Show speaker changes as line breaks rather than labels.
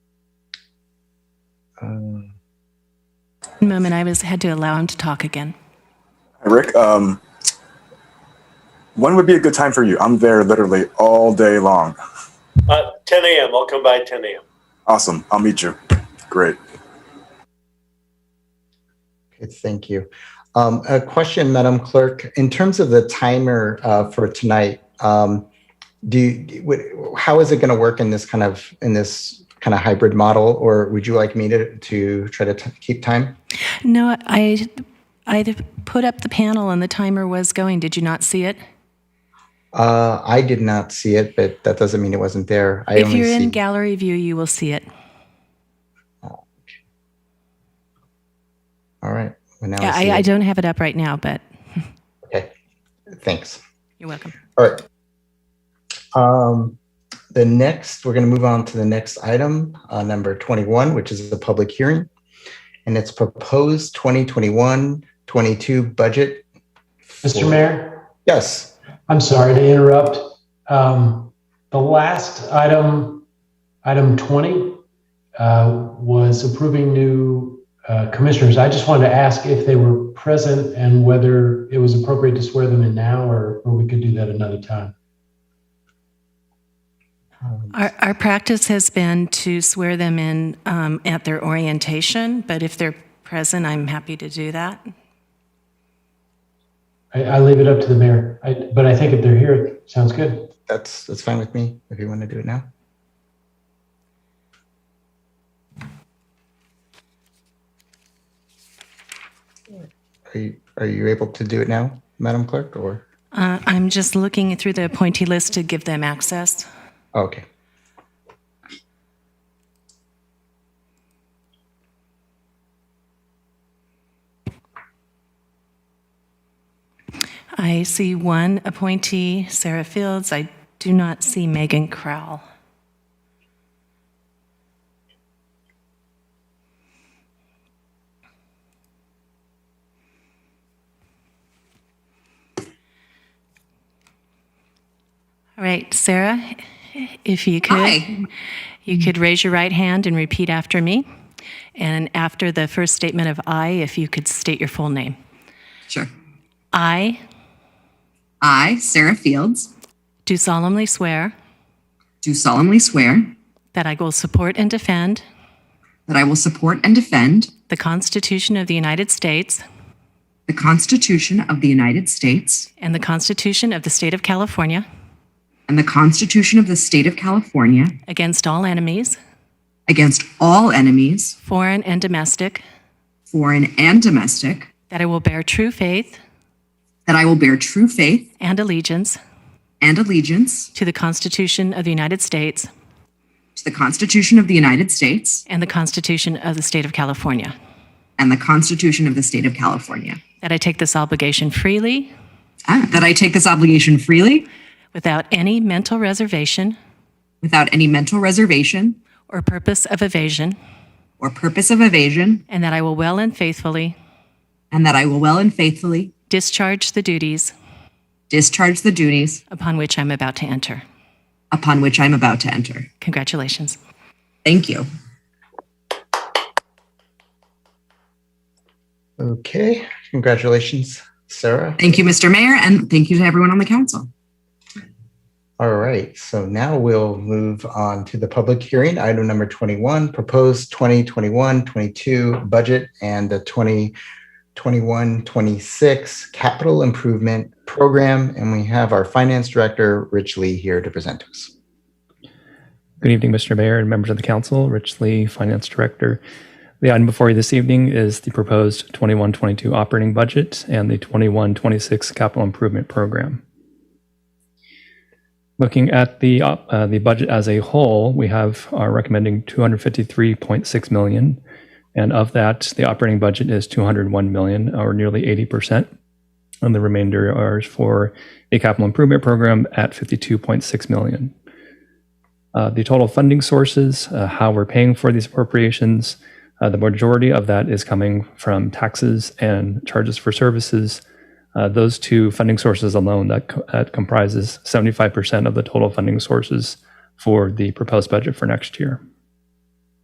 moment I was had to allow him to talk again.
Hi, Rick, um, when would be a good time for you? I'm there literally all day long.
Uh, 10 a.m. I'll come by 10 a.m.
Awesome. I'll meet you. Great.
Okay, thank you. Um, A question, Madam Clerk, in terms of the timer uh, for tonight, um, do you, would- how is it going to work in this kind of, in this kind of hybrid model? Or would you like me to, to try to t- keep time?
No, I I put up the panel and the timer was going. Did you not see it?
Uh, I did not see it, but that doesn't mean it wasn't there. I
if
only
you're
see,
in gallery view, you will see it.
All right. Well, now
Yeah,
see
I, I
it.
don't have it up right now, but
Okay. Thanks.
you're welcome.
All right. Um, the next, we're going to move on to the next item, uh, number 21, which is the public hearing. And it's proposed 2021 22 budget.
Mr. Mayor,
Yes.
I'm sorry to interrupt. Um, The last item, item 20, uh, was approving new uh, commissioners. I just wanted to ask if they were present and whether it was appropriate to swear them in now or or we could do that another time.
Um,
Our, our practice has been to swear them in um, at their orientation, but if they're present, I'm happy to do that.
I I leave it up to the mayor, I- but I think if they're here, it sounds good.
That's, that's fine with me if you want to do it now. Are you, are you able to do it now, Madam Clerk, or?
Uh, I'm just looking through the appointee list to give them access.
Oh, Okay.
I see one appointee, Sarah Fields. I do not see Megan Crowell. All right, Sarah, if you could,
Hi.
you could raise your right hand and repeat after me. And after the first statement of I, if you could state your full name.
Sure.
I
I, Sarah Fields,
do solemnly swear.
do solemnly swear
That I will support and defend
that I will support and defend
the Constitution of the United States
the Constitution of the United States
and the Constitution of the State of California
and the Constitution of the State of California
against all enemies,
against all enemies,
foreign and domestic.
foreign and domestic,
That I will bear true faith
that I will bear true faith
and allegiance
and allegiance
to the Constitution of the United States
to the Constitution of the United States
and the Constitution of the State of California.
and the Constitution of the State of California,
That I take this obligation freely
Ah, that I take this obligation freely
without any mental reservation
without any mental reservation
or purpose of evasion.
or purpose of evasion,
And that I will well and faithfully
and that I will well and faithfully
discharge the duties
discharge the duties
upon which I'm about to enter.
upon which I am about to enter.
Congratulations.
Thank you.
Okay, congratulations, Sarah.
Thank you, Mr. Mayor, and thank you to everyone on the council.
All right, so now we'll move on to the public hearing, item number 21, proposed 2021-22 budget and the 2021-26 capital improvement program. And we have our finance director, Rich Lee, here to present to us.
Good evening, Mr. Mayor and members of the council. Rich Lee, Finance Director. The item before you this evening is the proposed 21-22 operating budget and the 21-26 capital improvement program. Looking at the op- uh, the budget as a whole, we have are recommending 253.6 million, and of that, the operating budget is 201 million, or nearly 80 percent, and the remainder are for the capital improvement program at 52.6 million. Uh, the total funding sources, uh, how we're paying for these appropriations. Uh, the majority of that is coming from taxes and charges for services. Uh, those two funding sources alone that, co- that comprises 75% of the total funding sources for the proposed budget for next year.